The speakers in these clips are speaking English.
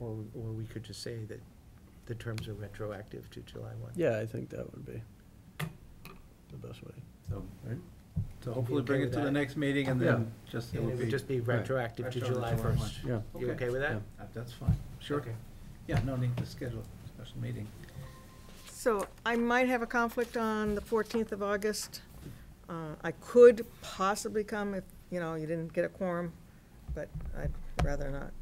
Or, or we could just say that the terms are retroactive to July one. Yeah, I think that would be the best way. So Right. so hopefully bring okay it to with the that? next meeting and then just, it And would it be. would just be right, retroactive to retro July July first. Yeah, You okay with that? Uh, That's fine, sure. Okay. Yeah, no need to schedule a special meeting. So I might have a conflict on the 14th of August. Uh, I could possibly come if, you know, you didn't get a quorum, but I'd rather not.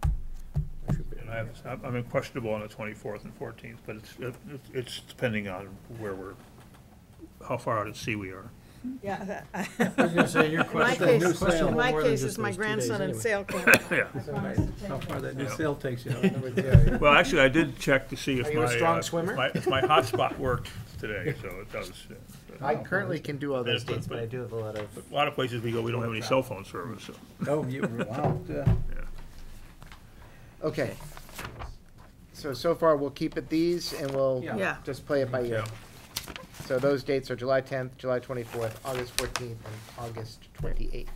And I have- I'm I'm questionable on the 24th and 14th, but it's, it- it's depending on where we're, how far out at sea we are. Yeah. I was gonna say, your In my Question- case, new sale. in my more than case, just it's my those two days grandson in anyway. sail camp. Yeah. How far that new Yeah. sale takes you. Well, actually, I did check to see if Are my. you a strong uh, if swimmer? my- If my hotspot worked today, so it does. yeah. But I currently can do all those But- dates, but I do have a lot of, A lot of places we go, we don't have any cell phone service, so. Oh, you, uh, wow. Okay. So, so far, we'll keep it these, and we'll Yeah. Yeah, just play it by ear. Yeah. So those dates are July tenth, July twenty-fourth, August fourteenth, and August twenty-eighth.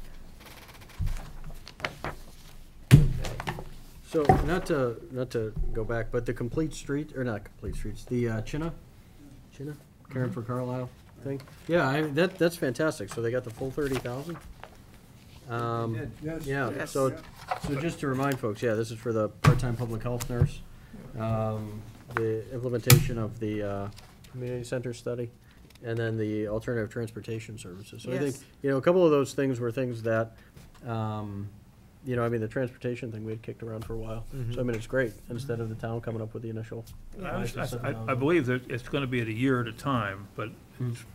So not to, not to go back, but the complete street, or not complete streets, the uh, Chinna, Chinna, Karen for Carlisle thing? Yeah, I, that, that's fantastic. So they got the full thirty thousand? Um, yeah, Yes. so, so just to remind folks, yeah, this is for the part-time public health nurse. Um, the implementation of the, uh, community center study, and then the alternative transportation services. So I think, Yes. you know, a couple of those things were things that, um, you know, I mean, the transportation thing we had kicked around for a while. Mm-hmm. So I mean, it's great, instead of the town coming up with the initial. I, yeah. understand- I- I believe that it's gonna be at a year at a time, but,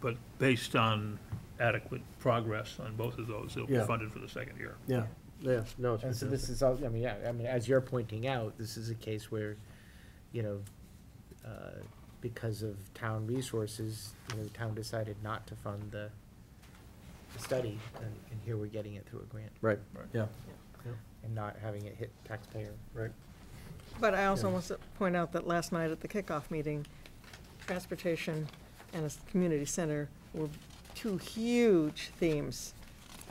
but based on adequate progress on both of those, it'll be Yeah. funded for the second year. Yeah. Yeah, no, it's and so this fantastic. is, all. I mean, yeah, I mean, as you're pointing out, this is a case where, you know, uh, because of town resources, you know, the town decided not to fund the the study, and and here we're getting it through a grant, Right, Right. yeah, and not having it hit taxpayer. right. But I also want to point out that last night at the kickoff meeting, transportation and a s- community center were two huge themes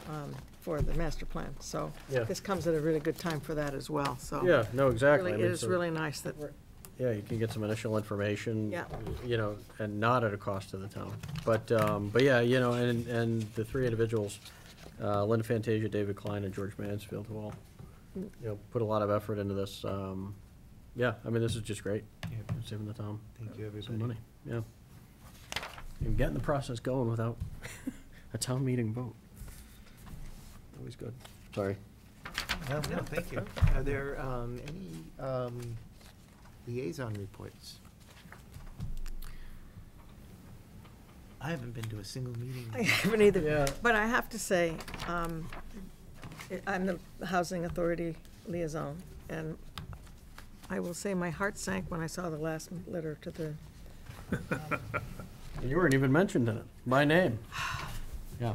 um, for the master plan. So Yeah. this comes at a really good time for that as well, so. Yeah, no, exactly. Really, I it mean, is so- really nice that, Yeah, you can get some initial information. Yeah. You know, and not at a cost to the town. But, um, but yeah, you know, and, and the three individuals, uh, Linda Fantasia, David Klein, and George Mansfield, who all, you know, put a lot of effort into this. Um, yeah, I mean, this is just great. It's Saving the town Thank you, everybody. some money, yeah. And getting the process going without a town meeting vote. Always good. Sorry. No, no, thank you. Are there um, any um, liaison reports? I haven't been to a single meeting. I haven't either. Yeah. But I have to say, um, I- I'm the Housing Authority liaison, and I will say my heart sank when I saw the last letter to the, You weren't even mentioned in it, by name. Yeah.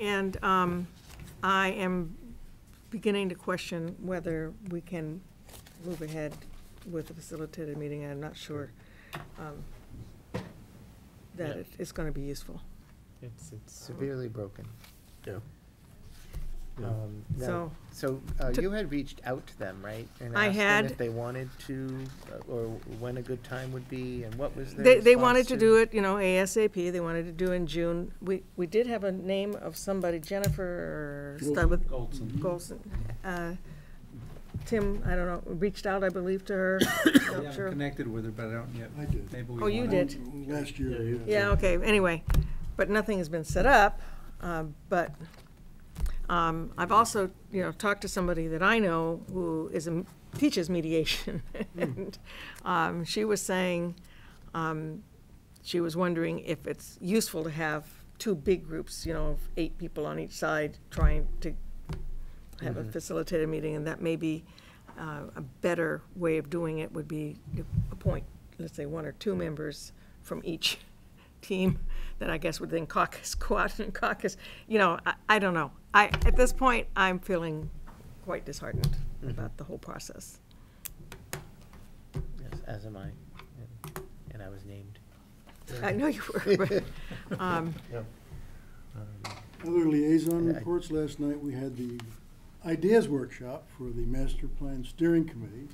and um, I am beginning to question whether we can move ahead with a facilitated meeting. I'm not sure um, that Yeah. it- it's going to be useful. It's, it's, Severely broken. Yeah. Yeah. um, no. So, So, uh, To- you had reached out to them, right? And I asked them had. If they wanted to, uh, or when a good time would be, and what was their They, they wanted response to do it, you know, ASAP, they wanted to do in June. We, we did have a name of somebody, Jennifer, started with Goldson. Golson. Uh, Tim, I don't know, reached out, I believe, to her, I not haven't sure. connected with her, but I don't yet. I did. Maybe we Oh, you wanna- did? Last year. Yeah, you- Yeah, okay, anyway, but nothing has been set up, uh, but um, I've also, you know, talked to somebody that I know who is, a- teaches mediation. and um, She was saying, um, she was wondering if it's useful to have two big groups, you know, of eight people on each side trying to have a facilitated meeting, and that maybe uh, a better way of doing it would be to appoint, let's say, one or two members from each team that I guess would then caucus, go out and caucus, you know, I, I don't know. I, at this point, I'm feeling quite disheartened about the whole process. Yes, as am I, and- and I was named. I know you were, but, um, Um, Other liaison Yeah, I- reports, last night we had the ideas workshop for the master plan steering committee.